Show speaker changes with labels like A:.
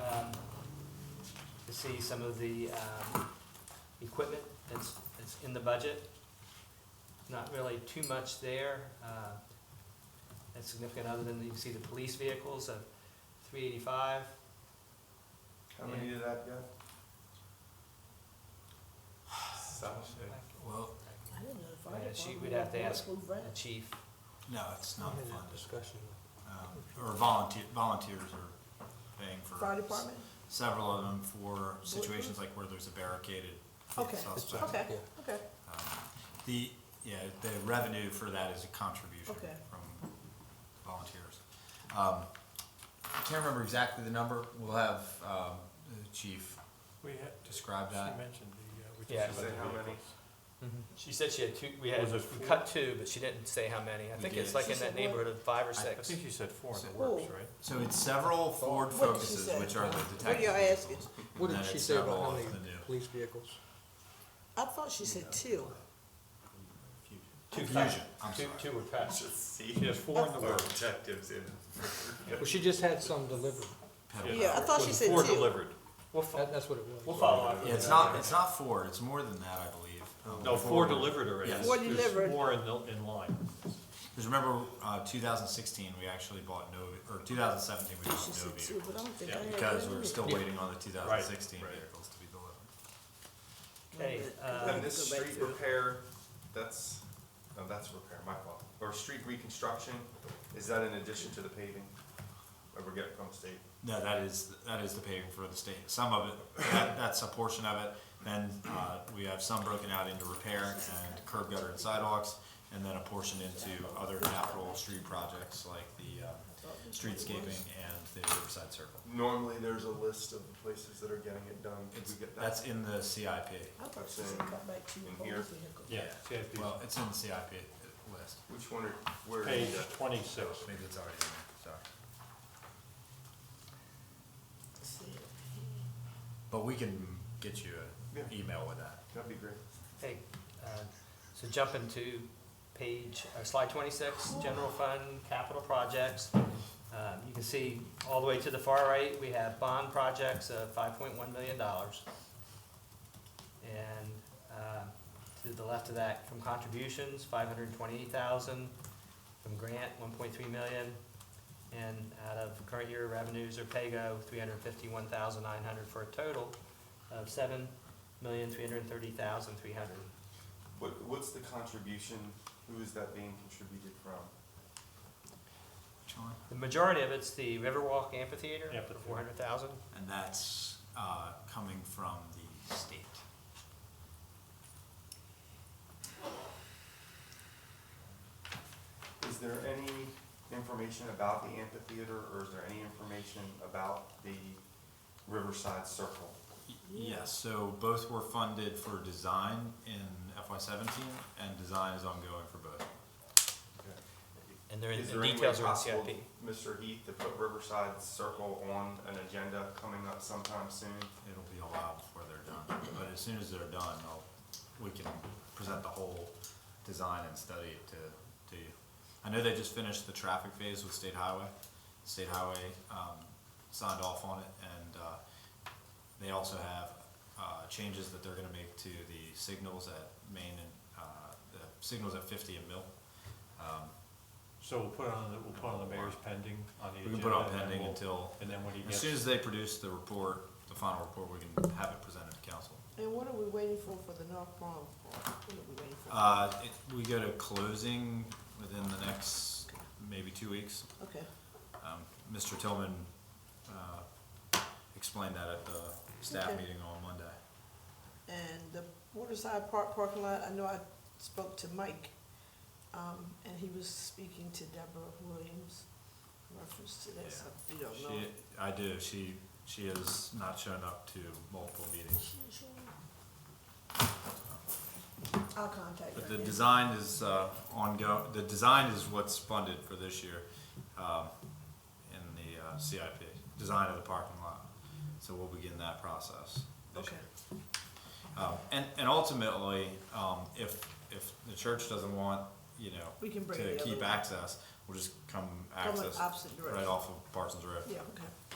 A: um, see some of the um, equipment that's, that's in the budget. Not really too much there uh, that's significant, other than you can see the police vehicles of 385.
B: How many did that get?
C: Well,
D: I didn't know the fire
A: Yeah, she-
D: department
A: we'd have to
D: would
A: ask-
D: move
A: A
D: that.
A: chief,
C: no, it's not funded,
E: discussion.
C: Um, or volunteer, volunteers are paying
D: Fire
C: for
D: department?
C: several of them for situations like where there's a barricaded
D: Okay,
C: suspect.
D: okay,
E: Yeah.
D: okay,
C: Um, The, yeah, the revenue for that is a contribution
D: Okay.
C: from volunteers. Um, I can't remember exactly the number, we'll have, um, the chief
E: We had,
C: describe
E: she
C: that.
E: mentioned the, uh, we
A: Yeah.
B: She
E: just.
B: said how many?
A: Mm-hmm. she said she had two, we had,
E: Was it
A: we
E: four?
A: cut two, but she didn't say how many. I
C: We
A: think it's
C: did.
A: like
D: She
A: in that
D: said what?
A: neighborhood of five or
C: I
E: I
A: six.
E: think you said four in
C: Said-
E: the works,
D: Cool.
E: right?
C: So it's several Ford
D: What did she
C: Focuses,
D: say?
C: which are the
D: What are you
C: detective
D: asking?
C: vehicles. and
E: What did
C: then
E: she
C: it's
E: say about
C: several
E: how
C: of
E: many
C: the new-
E: police vehicles?
D: I thought she said two.
A: Two
C: Fusion, I'm
A: Two,
C: sorry.
A: two were cut.
B: Just see
E: She has four in the
B: our
E: works.
B: objectives in.
E: Well, she just had some delivered,
C: Pedal
D: Yeah, I thought she said
E: four
D: two.
E: delivered,
A: We'll, fo-
E: that, that's what it was.
A: we'll follow up.
C: Yeah, it's not, it's not Ford, it's more than that, I believe. Um,
E: No, four delivered already.
C: Yes.
D: Four
E: There's
D: delivered.
E: Four in, the- in line.
C: Because remember, uh, two thousand sixteen, we actually bought no, or two thousand seventeen, we bought
D: She
C: no
D: said two, but
C: vehicles.
D: I don't think I
E: Yeah,
D: had.
C: Because
D: that
C: we were
D: in
C: still
E: Yeah.
C: waiting on the two thousand sixteen
E: Right.
C: vehicles to be delivered.
D: there.
A: Okay,
D: Wait a minute, 'cause I
A: um,
D: had
B: And
D: to
B: this
D: go back
B: street
D: to it.
B: repair, that's, no, that's repair, my fault. Or street reconstruction, is that in addition to the paving that we're getting from state?
C: No, that is, that is the paving for the state. Some of it, that, that's a portion of it. Then, uh, we have some broken out into repair and curb gutter and sidewalks, and then a portion into other capital street projects like the, uh, streetscaping and the Riverside Circle.
B: Normally, there's a list of the places that are getting it done. Did
C: It's,
B: we get that?
C: that's in the CIP.
D: I thought she said cut back two
B: In
D: whole
B: here.
D: vehicles.
E: Yeah, she has these.
C: Well, it's in the CIP list.
B: Which one, are- where
E: Page
B: is that?
E: twenty-six.
C: Maybe it's already in there, sorry.
D: Let's see.
C: But we can get you an
B: Yeah.
C: email with that.
B: That'd be great.
A: Hey, uh, so jump into page, or slide twenty-six, general fund, capital projects. Uh, You can see all the way to the far right, we have bond projects of five point one million dollars. And uh, to the left of that, from contributions, five hundred and twenty-eight thousand, from grant, one point three million, and out of current year revenues or paygo, three hundred and fifty-one thousand nine hundred, for a total of seven million three hundred thirty thousand three hundred.
B: What, what's the contribution? Who is that being contributed from?
C: Sean?
A: The majority of it's the Riverwalk Amphitheater for
E: Amphitheater.
A: four hundred thousand.
C: And that's, uh, coming from the state.
B: Is there any information about the amphitheater, or is there any information about the Riverside Circle?
C: Y- Yes, so both were funded for design in FY seventeen, and design is ongoing for both.
A: And they're, in-
B: Is
A: the
B: there any way
A: details are in
B: possible,
A: CIP.
B: Mr. Heath, to put Riverside Circle on an agenda coming up sometime soon?
C: It'll be a while before they're done, but as soon as they're done, I'll, we can present the whole design and study it to, to you. I know they just finished the traffic phase with State Highway. State Highway, um, signed off on it and, uh, they also have, uh, changes that they're gonna make to the signals at Main and, uh, the signals at fifty and Mill. Um,
E: So we'll put it on, the- we'll put it on the mayor's pending on the
C: We
E: agenda.
C: can put on
E: and then
C: pending
E: we'll-
C: until,
E: And then when he
C: as
E: gets,
C: soon as they produce the report, the final report, we can have it presented to council.
D: And what are we waiting for for the North Palm part? What are we waiting for?
C: Uh, it, we go to closing within the next maybe two weeks.
D: Okay,
C: Um, Mr. Tillman, uh, explained that at the staff
D: Okay.
C: meeting on Monday.
D: and the Waterside Park parking lot, I know I spoke to Mike, um, and he was speaking to Deborah Williams, in reference to
C: Yeah.
D: that, so if you don't know.
C: She, I do, she, she has not shown up to multiple meetings.
D: I'll contact her.
C: But the
D: again.
C: design is, uh, ongoing, the design is what's funded for this year, um, in the uh, CIP, design of the parking lot. So we'll begin that process this
D: Okay.
C: year. Um, and, and ultimately, um, if, if the church doesn't want, you know,
D: We can bring the
C: to
D: other
C: keep
D: one.
C: access, we'll just come
D: Come in
C: access
D: opposite
C: right
D: direction.
C: off of Parsons Road.
D: Yeah, okay.